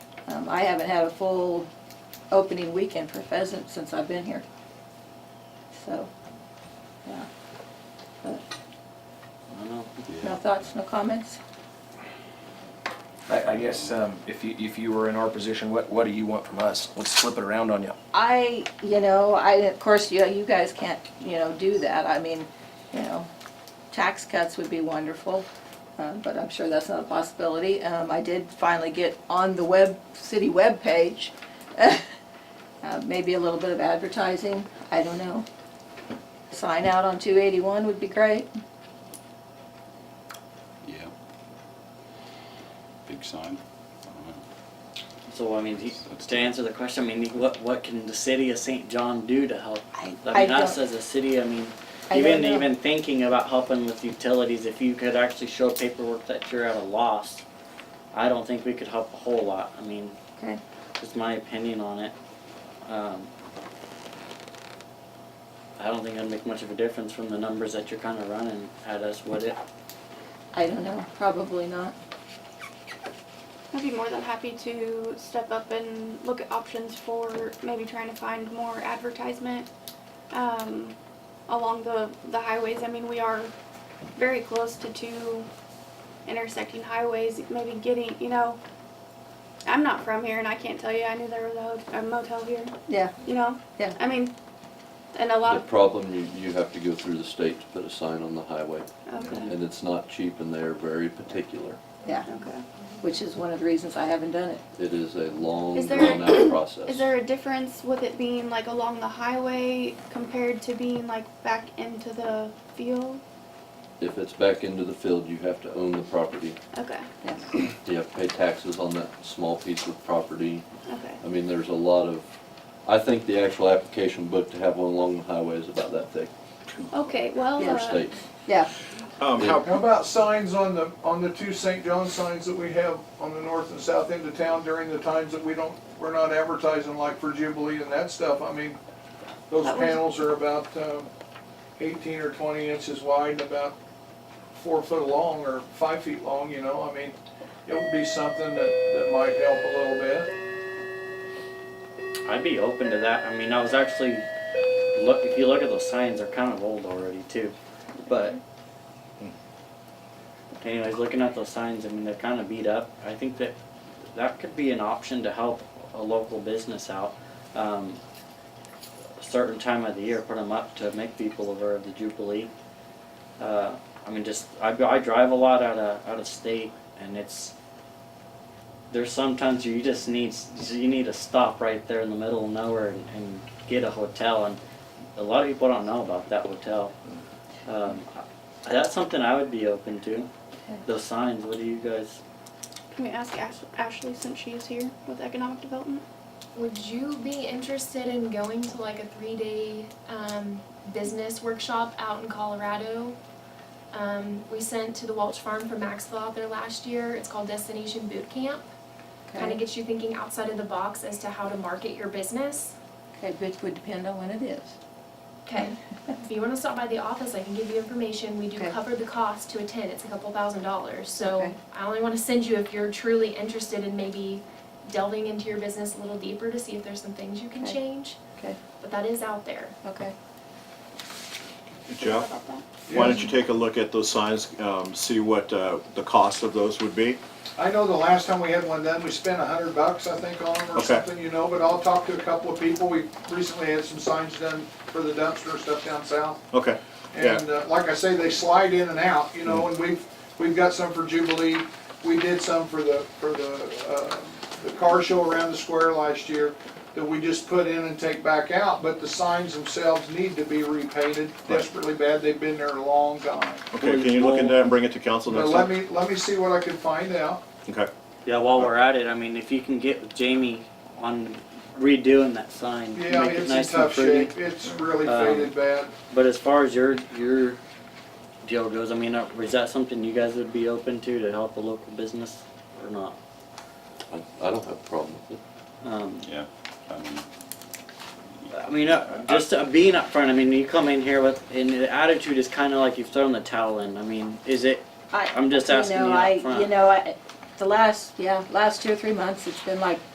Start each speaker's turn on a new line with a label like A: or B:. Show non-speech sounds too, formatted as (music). A: Um, I haven't had a full opening weekend for pheasant since I've been here. So, yeah. But
B: I know.
A: no thoughts, no comments?
C: I, I guess, um, if you, if you were in our position, what, what do you want from us? Let's flip it around on you.
A: I, you know, I, of course, you, you guys can't, you know, do that. I mean, you know, tax cuts would be wonderful, uh, but I'm sure that's not a possibility. Um, I did finally get on the web, city webpage, (laughs) uh, maybe a little bit of advertising, I don't know. Sign out on two eighty-one would be great.
D: Yeah. Big sign.
B: So I mean, he, to answer the question, I mean, what what can the city of St. John do to help?
A: I,
B: I
A: I
B: mean, us
A: don't,
B: as a city, I mean,
A: I don't
B: even
A: know.
B: even thinking about helping with utilities, if you could actually show paperwork that you're at a loss, I don't think we could help a whole lot. I mean,
A: Okay.
B: just my opinion on it. Um, I don't think it'd make much of a difference from the numbers that you're kind of running at us, would it?
A: I don't know, probably not.
E: I'd be more than happy to step up and look at options for maybe trying to find more advertisement um, along the, the highways. I mean, we are very close to two intersecting highways, maybe getting, you know, I'm not from here and I can't tell you. I knew there was a, ho- a motel here,
A: Yeah,
E: you know?
A: Yeah.
E: I mean, and a lot
F: The
E: of.
F: problem, you, you have to go through the state to put a sign on the highway,
E: Okay.
F: and it's not cheap, and they're very particular.
A: yeah,
E: Okay.
A: which is one of the reasons I haven't done it.
F: It is a long,
E: Is there-
F: drawn-out process.
E: Is there a difference with it being like along the highway compared to being like back into the field?
F: If it's back into the field, you have to own the property,
E: Okay,
A: Yeah,
F: you have to pay taxes on that small piece of property.
E: okay.
F: I mean, there's a lot of, I think the actual application book to have one along the highway is about that thick
E: Okay, well,
F: for
E: uh,
F: state.
A: yeah,
G: Um,
F: how-
H: How about signs on the, on the two St. John signs that we have on the north and south end of town during the times that we don't, we're not advertising like for Jubilee and that stuff? I mean, those
E: That was-
H: panels are about um, eighteen or twenty inches wide and about four foot long or five feet long, you know? I mean, it would be something that, that might help a little bit.
B: I'd be open to that. I mean, I was actually look. If you look at those signs, they're kind of old already too. But anyways, looking at those signs, I mean, they're kind of beat up. I think that that could be an option to help a local business out. Um, a certain time of the year, put them up to make people aware of the Jubilee. Uh, I mean, just I, I drive a lot out of out of state, and it's there's sometimes you just need you need to stop right there in the middle of nowhere and, and get a hotel and a lot of people don't know about that hotel um, I- that's something i would be open to those signs what do you guys
E: can we ask Ash- Ashley since she's here with economic development?
I: Would you be interested in going to like a three day um, business workshop out in Colorado? Um, we sent to the Welch Farm for Maxwell out there last year. It's called Destination Boot Camp. Kind of
A: okay,
I: gets you thinking outside of the box as to how to market your business.
A: okay, which would depend on when it is.
I: Okay. if you want to stop by the office, I can give you information. We do
A: Okay.
I: cover the cost to attend. It's a couple thousand dollars. So
A: Okay.
I: I only want to send you if you're truly interested in maybe delving into your business a little deeper to see if there's some things you can
A: Okay.
I: change.
A: Okay,
I: But that is out there.
A: okay.
E: How
G: Jeff,
E: about that?
G: why don't you take a look at those signs, um, see what, uh, the cost of those would be?
H: I know the last time we had one done, we spent a hundred bucks, I think, on them or
G: Okay.
H: something, you know, but I'll talk to a couple of people. We recently had some signs done for the dumpster and stuff down south.
G: Okay, Yeah.
H: And uh, like I say, they slide in and out, you know, and we've, we've got some for Jubilee. We did some for the, for the, uh, the car show around the square last year that we just put in and take back out, but the signs themselves need to be repainted desperately bad. They've been there a long time.
G: okay, can you look into that and bring it to council
H: But
G: next
H: let
G: time?
H: me, let me see what I can find out.
G: Okay,
B: yeah while we're at it i mean if you can get with jamie on redoing that sign
H: Yeah,
B: make it
H: it's in
B: nice
H: tough
B: and pretty
H: shape. It's really
B: Um,
H: faded bad.
B: but as far as your your deal goes i mean uh, is that something you guys would be open to to help a local business or not
F: I, I don't have a problem with it.
B: um,
D: Yeah, I mean,
B: I mean, uh, just uh, being up front. I mean, you come in here with, and the attitude is kind of like you've thrown the towel in. I mean, is it?
A: I-
B: I'm just asking
A: know,
B: you up
A: I-
B: front.
A: You know, I, the last, yeah, last two or three months, it's been like